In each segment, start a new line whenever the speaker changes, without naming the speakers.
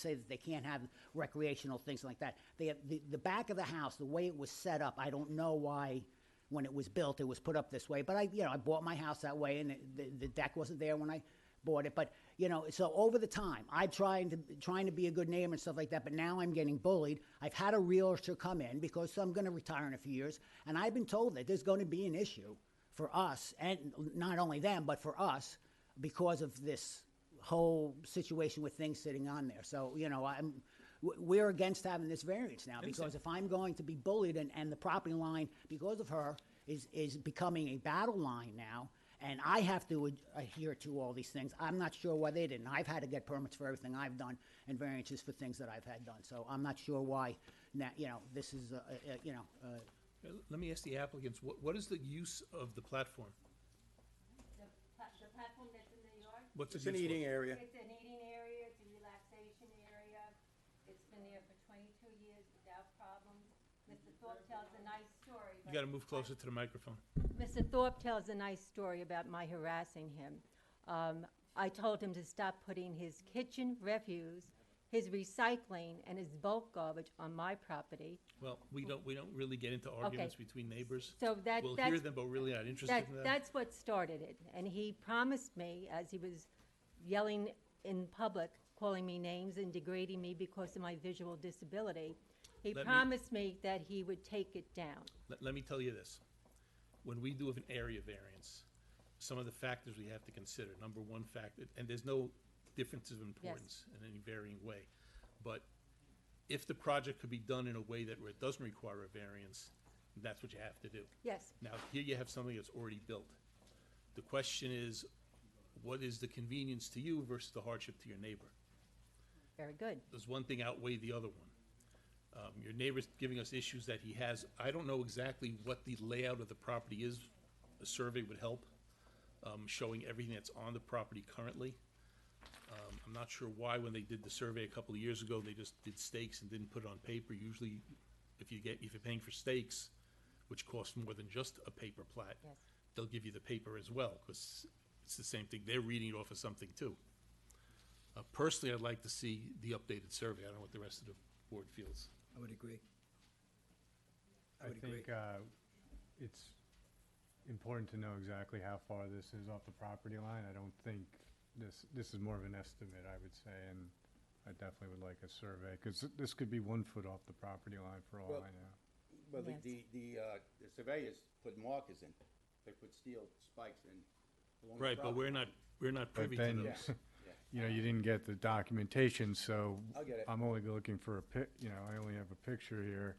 say that they can't have recreational things like that. They have, the, the back of the house, the way it was set up, I don't know why, when it was built, it was put up this way, but I, you know, I bought my house that way, and the, the deck wasn't there when I bought it, but, you know, so over the time, I tried to, trying to be a good neighbor and stuff like that, but now I'm getting bullied. I've had a realtor come in, because I'm gonna retire in a few years, and I've been told that there's gonna be an issue for us, and not only them, but for us, because of this whole situation with things sitting on there. So, you know, I'm, w- we're against having this variance now, because if I'm going to be bullied and, and the property line, because of her, is, is becoming a battle line now, and I have to ad- adhere to all these things, I'm not sure why they didn't. I've had to get permits for everything I've done and variances for things that I've had done, so I'm not sure why, now, you know, this is, uh, uh, you know, uh,
Uh, Let me ask the applicants, what, what is the use of the platform?
The pla- the platform that's in the yard,
What's
It's
it
an
used
eating
for?
area.
it's an eating area, it's a relaxation area. It's been there for twenty-two years without problems. Mr. Thorpe tells a nice story.
You
but-
gotta move closer to the microphone.
Mr. Thorpe tells a nice story about my harassing him. Um, I told him to stop putting his kitchen refuse, his recycling, and his bulk garbage on my property.
Well, we don't, we don't really get into arguments between neighbors.
So that,
We'll hear
that's
them, but we're really not interested
That,
in that.
that's what started it, and he promised me, as he was yelling in public, calling me names and degrading me because of my visual disability, he
Let me-
promised me that he would take it down.
Let, let me tell you this. When we do have an area variance, some of the factors we have to consider, number one factor, and there's no difference of importance in any varying way. But if the project could be done in a way that where it doesn't require a variance, that's what you have to do.
Yes,
Now, here you have something that's already built. The question is, what is the convenience to you versus the hardship to your neighbor?
very good.
Does one thing outweigh the other one? Um, your neighbor's giving us issues that he has. I don't know exactly what the layout of the property is. A survey would help, um, showing everything that's on the property currently. Um, I'm not sure why, when they did the survey a couple of years ago, they just did stakes and didn't put it on paper. Usually, if you get, if you're paying for stakes, which costs more than just a paper plat,
Yes.
they'll give you the paper as well, because it's the same thing. They're reading it off of something too. Uh, Personally, I'd like to see the updated survey. I don't know what the rest of the board feels.
I would agree. I
I
would agree.
think uh, it's important to know exactly how far this is off the property line. I don't think this, this is more of an estimate, I would say, and I definitely would like a survey, because this could be one foot off the property line for all
Well-
I know.
Well, the,
Yes.
the, the, uh, the surveyors put markers in, they put steel spikes in. along the
Right, but
property.
we're not, we're not
But
privy to
then,
those.
Yeah.
you know, you didn't get the documentation, so.
I'll get it.
I'm only looking for a pic, you know, I only have a picture here.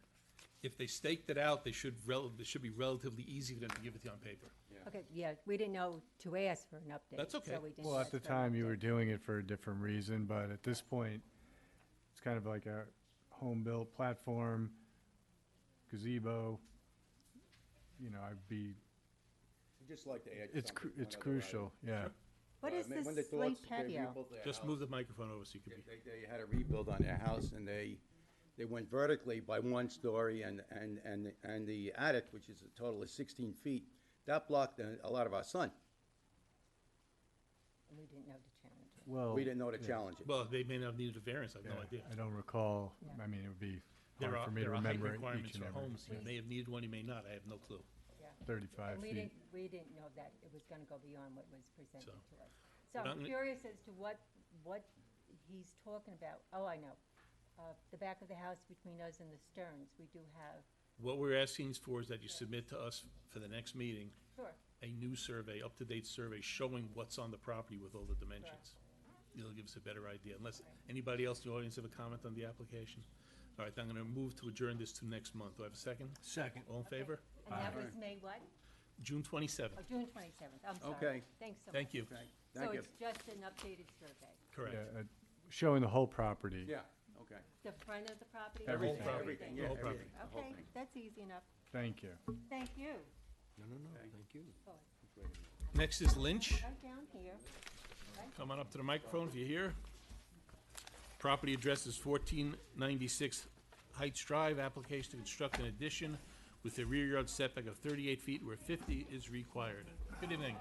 If they staked it out, they should rel, it should be relatively easy for them to give it to you on paper.
Yeah.
Okay, yeah, we didn't know to ask for an update.
That's
so
okay.
we didn't
Well,
ask
at the
for an
time, you
update.
were doing it for a different reason, but at this point, it's kind of like a home-built platform, gazebo. You know, I'd be,
We'd Just like to add
it's,
something,
cru- it's
one other item.
crucial, yeah.
What
Uh,
is
ma- when
this
they
slate
thought they
patio?
rebuilt their
Just
house,
move the microphone over so you
They,
can be,
they- they had a rebuild on their house and they, they went vertically by one story and, and, and, and the attic, which is a total of sixteen feet, that blocked a, a lot of our sun.
We didn't know to challenge
Oh,
it.
Well,
We didn't know to challenge it.
well, they may not have needed a variance, I have
yeah,
no idea.
I don't recall, I mean, it would be
There
hard
are,
for me to
there are height
remember
requirements
each and
for
every
homes. You may have needed one, you may not, I have no clue.
thirty-five
And we
feet.
didn't, we didn't know that it was gonna go beyond what was presented
So-
to us.
But
So
I'm
I'm
gonna-
curious as to what, what he's talking about. Oh, I know. Uh, the back of the house between us and the Stearns, we do have,
What we're asking for is that you submit to us for the next meeting,
sure,
a new survey, up-to-date survey showing what's on the property with all the dimensions. It'll give us a better idea, unless, anybody else in the audience have a comment on the application? All right, then I'm gonna move to adjourn this to next month. Do I have a second? Second. All in favor?
and that was May what?
June twenty-seventh.
Oh, June twenty-seventh, I'm sorry.
Okay.
Thanks so much.
Thank you.
Okay,
So
thank you.
it's just an updated survey,
Correct.
Yeah, uh, Showing the whole property.
Yeah, okay.
the front of the property?
Everything.
Whole property.
Everything,
The
yeah,
whole property.
everything, the whole
Okay,
thing.
that's easy enough.
Thank you.
Thank you.
Next is Lynch.
Right down here.
Come on up to the microphone if you're here. Property address is fourteen ninety-six Heights Drive. Application to construct an addition with a rear yard setback of thirty-eight feet where fifty is required. Good evening.